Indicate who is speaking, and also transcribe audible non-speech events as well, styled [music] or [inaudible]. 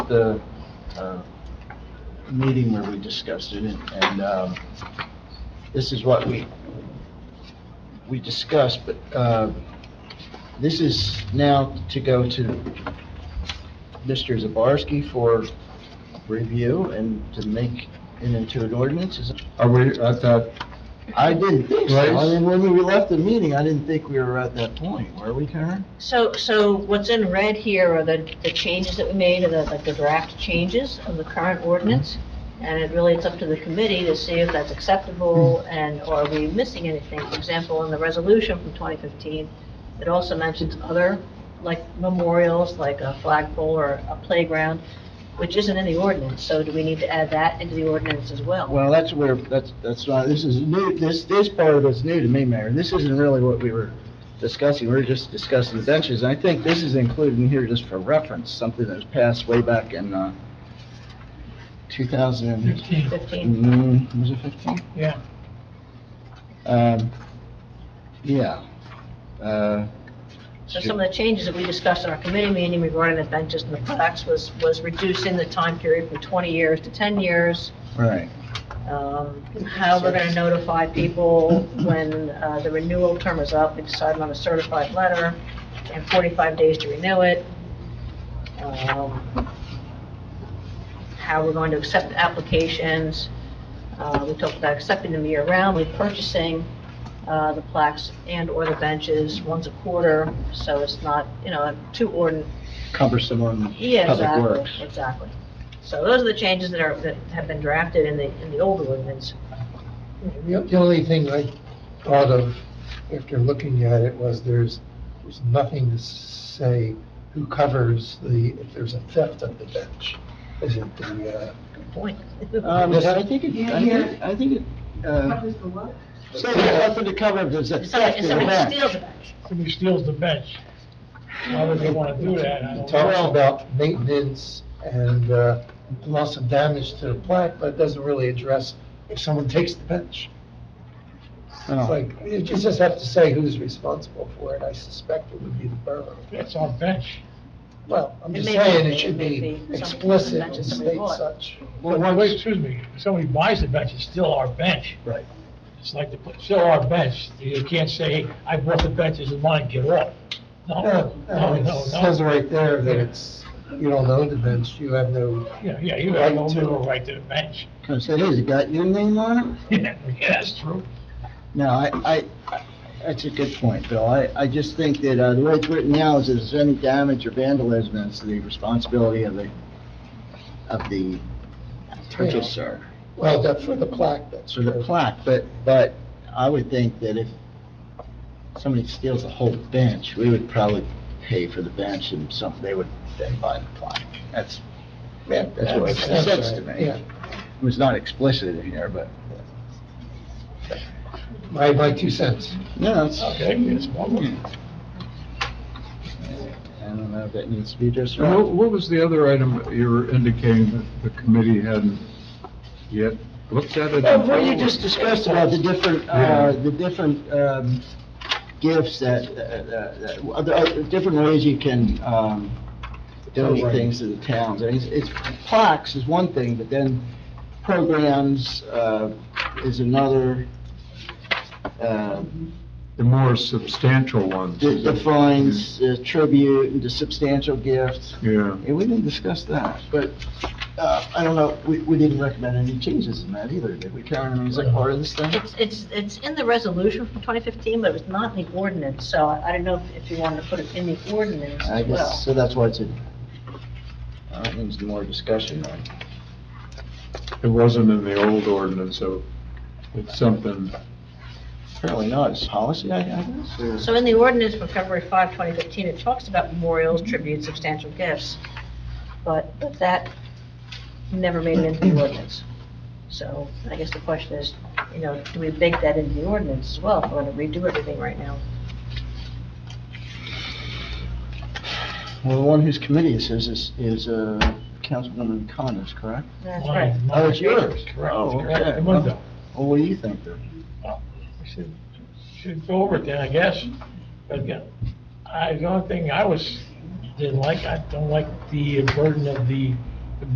Speaker 1: the uh, meeting where we discussed it, and- and um, this is what we, we discussed, but uh, this is now to go to Mr. Zabarski for review and to make it into an ordinance. Is-
Speaker 2: Are we at that,
Speaker 1: I didn't think so. I
Speaker 2: Right.
Speaker 1: mean, when we left the meeting, I didn't think we were at that point, were we, Karen?
Speaker 3: So, so what's in red here are the, the changes that we made, and the, like the draft changes of the current ordinance. And it really, it's up to the committee to see if that's acceptable and are we missing anything? For example, in the resolution from 2015, it also mentions other, like memorials, like a flagpole or a playground, which isn't in the ordinance. So do we need to add that into the ordinance as well?
Speaker 1: Well, that's where, that's, that's why, this is new, this, this part of it's new to me, Mayor. This isn't really what we were discussing, we were just discussing the benches. And I think this is included in here just for reference, something that was passed way back in, uh, 2000, and-
Speaker 3: 15?
Speaker 1: mm, was it 15?
Speaker 4: Yeah.
Speaker 1: Um, yeah. Uh,
Speaker 3: So some of the changes that we discussed in our committee meeting regarding the benches and the plaques was, was reducing the time period from 20 years to 10 years,
Speaker 1: right,
Speaker 3: um, how we're going to notify people when uh, the renewal term is up, we decided on a certified letter, and 45 days to renew it, um, how we're going to accept applications, Uh, we talked about accepting them year-round, we purchasing uh, the plaques and/or the benches once a quarter, so it's not, you know, too ordin,
Speaker 1: cumbersome on
Speaker 3: yeah,
Speaker 1: public
Speaker 3: exactly,
Speaker 1: works.
Speaker 3: exactly. So those are the changes that are, that have been drafted in the, in the old ordinance.
Speaker 4: The the only thing I thought of after looking at it was there's, there's nothing to say who covers the, if there's a theft of the bench. Is it the, uh,
Speaker 3: Good point.
Speaker 1: Um, I think it, I think, I think it, uh,
Speaker 5: Covers the what?
Speaker 1: so nothing to cover, if there's a
Speaker 3: If
Speaker 1: theft
Speaker 3: somebody,
Speaker 1: in
Speaker 3: if
Speaker 1: the
Speaker 3: somebody
Speaker 1: bench.
Speaker 3: steals a bench,
Speaker 6: Somebody steals the bench. Why would they want to do that? I
Speaker 4: it
Speaker 6: don't
Speaker 4: talks
Speaker 6: know.
Speaker 4: about maintenance and uh, loss of damage to the plaque, but it doesn't really address if someone takes the bench. It's
Speaker 1: Oh.
Speaker 4: like, you just have to say who's responsible for it. I suspect it would be the borough.
Speaker 6: That's our bench.
Speaker 4: Well, I'm
Speaker 3: It
Speaker 4: just
Speaker 3: may
Speaker 4: saying
Speaker 3: be-
Speaker 4: it should
Speaker 3: it may
Speaker 4: be
Speaker 3: be some-
Speaker 4: explicit
Speaker 3: mention
Speaker 4: and
Speaker 3: somebody
Speaker 4: state
Speaker 3: bought.
Speaker 4: such.
Speaker 6: Well, wait, excuse me, if somebody buys the bench, it's still our bench.
Speaker 1: Right.
Speaker 6: It's like, the it's still our bench. You can't say, I bought the bench, it's mine, get off.
Speaker 4: No,
Speaker 6: No, no,
Speaker 4: no,
Speaker 6: no,
Speaker 4: it says
Speaker 6: no.
Speaker 4: right there that it's, you don't own the bench, you have no,
Speaker 6: Yeah, yeah, you have no
Speaker 4: Right to-
Speaker 6: legal right to the bench. [laughs]
Speaker 1: Comes, it is, it got your name on it?
Speaker 6: Yeah, that's true.
Speaker 1: No, I, I, I- that's a good point, Bill. I, I just think that, uh, the way it's written now is if there's any damage or vandalism, it's the responsibility of the, of the purchaser.
Speaker 4: well, that for the plaque, that's.
Speaker 1: So the
Speaker 4: true.
Speaker 1: plaque, but, but I would think that if somebody steals a whole bench, we would probably pay for the bench and some, they would then buy the plaque. That's,
Speaker 4: Yeah,
Speaker 1: that's what it
Speaker 4: that's
Speaker 1: says to
Speaker 4: right,
Speaker 1: me.
Speaker 4: yeah.
Speaker 1: It was not explicit in here, but,
Speaker 4: My, my two cents.
Speaker 1: no, it's.
Speaker 6: Okay, it's public.
Speaker 1: I don't know if that needs to be just
Speaker 2: and what,
Speaker 1: right.
Speaker 2: what was the other item you were indicating that the committee hadn't yet looked at it?
Speaker 1: Uh, Well, what you just discussed about the different, uh, the different, um, gifts that, uh, uh, that- other, other- different ways you can, um, donate things to the towns. I mean, it's, it's, plaques is one thing, but then programs, uh, is another, uh,
Speaker 2: The more substantial ones.
Speaker 1: that defines uh, tribute, the substantial gift.
Speaker 2: Yeah.
Speaker 1: Yeah, we didn't discuss that, but, uh, I don't know, we, we didn't recommend any changes in that either, did we, Karen? I mean, is that part of this thing?
Speaker 3: it's, it's, it's in the resolution from 2015, but it was not in the ordinance, so I I don't know if- if you wanted to put it in the ordinance
Speaker 1: I
Speaker 3: as
Speaker 1: guess,
Speaker 3: well.
Speaker 1: so that's why it's a, I think it's more discussion uh, on.
Speaker 2: It wasn't in the old ordinance, so it's something,
Speaker 1: Apparently not, it's policy, I I guess, or-
Speaker 3: So in the ordinance from February 5, 2015, it talks about memorials, tributes, substantial gifts, but but that never made it into the ordinance. So I guess the question is, you know, do we bake that into the ordinance as well, if we're going to redo everything right now?
Speaker 1: Well, the one whose committee this is, is, is, uh, Councilwoman Connors, correct?
Speaker 3: That's
Speaker 6: Mine-
Speaker 3: right.
Speaker 6: mine-
Speaker 1: Oh, it's yours.
Speaker 6: Correct,
Speaker 1: Oh,
Speaker 6: correct.
Speaker 1: okay.
Speaker 6: The window.
Speaker 1: Well, what do you think then?
Speaker 6: We should, should go over it then, I guess. But uh, again, I, the only thing I was, didn't like, I don't like the burden of the